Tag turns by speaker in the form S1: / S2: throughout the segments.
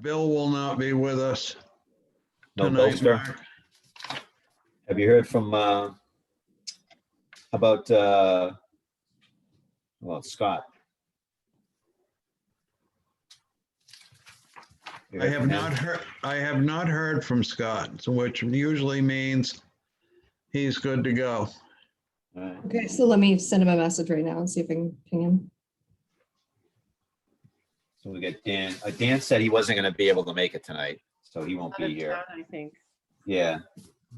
S1: Bill will not be with us
S2: No,
S1: tonight,
S2: Bolster.
S1: Mark.
S2: Have you heard from, uh, about, uh, well, Scott? You
S1: I
S2: heard
S1: have
S2: from
S1: not
S2: him?
S1: heard, I have not heard from Scott, so which usually means he's good to go.
S2: All right.
S3: Okay, so let me send him a message right now and see if I can ping him.
S2: So we got Dan, uh, Dan said he wasn't gonna be able to make it tonight, so he won't
S4: Out
S2: be
S4: of
S2: here.
S4: town, I think.
S2: Yeah,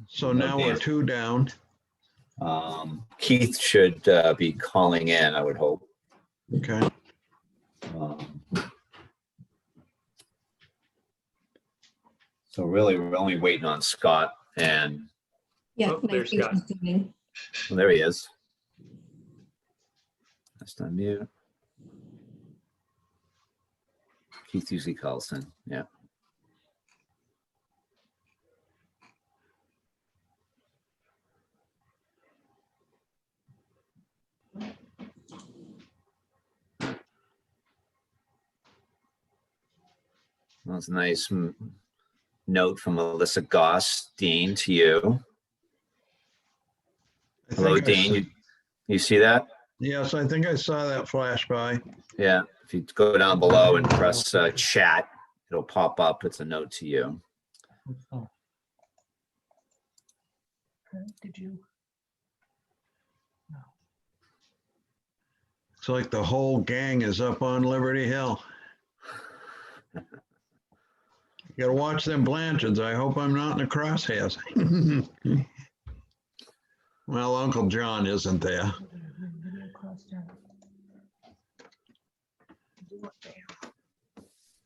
S1: So now we're two down.
S2: um, Keith should, uh, be calling in, I would hope.
S1: Okay.
S2: Um, So really, we're only waiting on Scott and,
S3: Yeah.
S5: Oh, there's Scott.
S3: 19th is evening.
S2: well, there he is. That's not mute. Keith usually calls in, yeah. That's a nice m- note from Melissa Goss, Dean, to you.
S1: I
S2: Hello,
S1: think I
S2: Dean.
S1: s-
S2: You, you see that?
S1: Yes, I think I saw that flash by.
S2: Yeah. If you go down below and press uh, chat, it'll pop up. It's a note to you.
S4: Did you?
S1: It's like the whole gang is up on Liberty Hill. You gotta watch them Blanchards. I hope I'm not in the crosshairs. Well, Uncle John isn't there.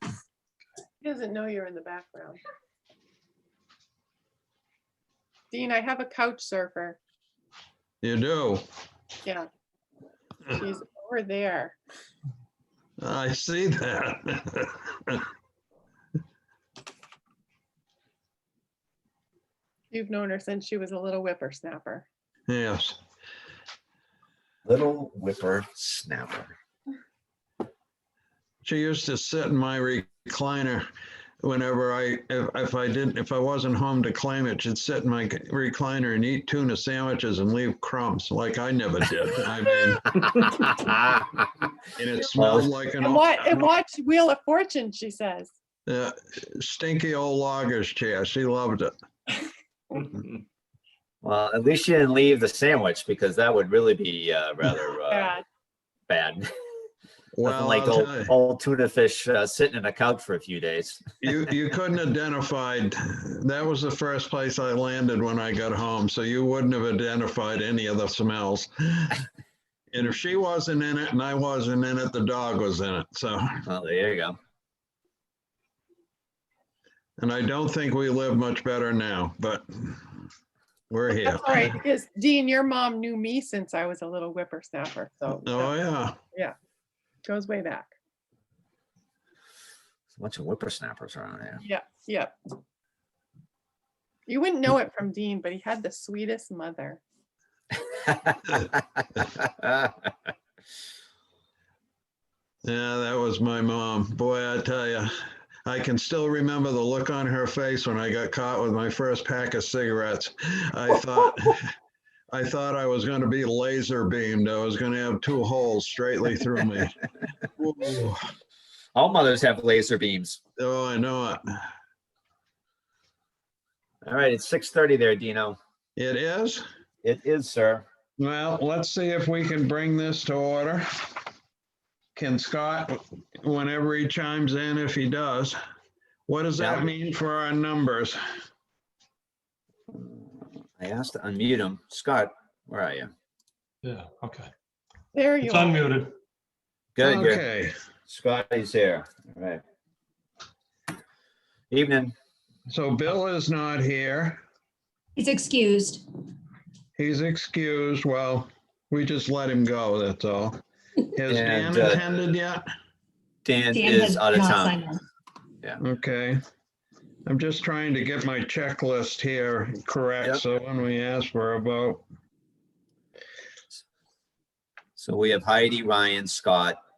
S4: He doesn't know you're in the background. Dean, I have a couch surfer.
S1: You do.
S4: Yeah. She's over there.
S1: I see that.
S4: You've known her since she was a little whippersnapper.
S1: Yes.
S2: Little whipper snapper.
S1: She used to sit in my recliner whenever I, if, if I didn't, if I wasn't home to claim it, she'd sit in my recliner and eat tuna sandwiches and leave crumbs like I never did. I mean, and it smelled like an.
S4: And
S1: old-
S4: what, and watch Wheel of Fortune, she says.
S1: uh, Stinky old logger's chair. She loved it.
S2: well, at least you didn't leave the sandwich because that would really be uh, rather uh,
S4: Yeah,
S2: bad. Nothing
S1: Well,
S2: like
S1: I'll
S2: old,
S1: tell
S2: old tuna fish uh, sitting in a couch for a few days.
S1: you, you you couldn't identified, that was the first place I landed when I got home, so you wouldn't have identified any of the smells. And if she wasn't in it and I wasn't in it, the dog was in it, so.
S2: Well, there you go.
S1: And I don't think we live much better now, but we're here.
S4: That's all right, because Dean, your mom knew me since I was a little whippersnapper, so
S1: Oh,
S4: that
S1: yeah.
S4: goes way back.
S2: There's a bunch of whippersnappers around here.
S4: Yeah, yeah. You wouldn't know it from Dean, but he had the sweetest mother.
S1: Yeah, that was my mom. Boy, I tell you, I can still remember the look on her face when I got caught with my first pack of cigarettes. I thought, I thought I was going to be laser beamed. I was going to have two holes straightly through me. Whoa.
S2: All mothers have laser beams.
S1: Oh, I know it.
S2: All right, it's 6:30 there, Dino.
S1: It is.
S2: It is, sir.
S1: Well, let's see if we can bring this to order. Can Scott, whenever he chimes in, if he does, what does that
S2: Yeah.
S1: mean for our numbers?
S2: I asked to unmute him. Scott, where are you?
S5: Yeah, okay.
S4: There you
S5: It's
S4: are.
S5: unmuted.
S2: Good, good.
S1: Oh, Okay,
S2: Scotty's there. All right. Evening.
S1: so Bill is not here.
S3: He's excused.
S1: He's excused. Well, we just let him go, that's all. Has Dan
S2: And, uh,
S1: attended yet?
S2: Dan
S3: Dan
S2: is
S3: has
S2: out of
S3: not signed
S2: town.
S3: on.
S1: Okay. I'm just trying to get my checklist here correct,
S2: Yep.
S1: so when we ask for a vote,
S2: So we have Heidi, Ryan, Scott,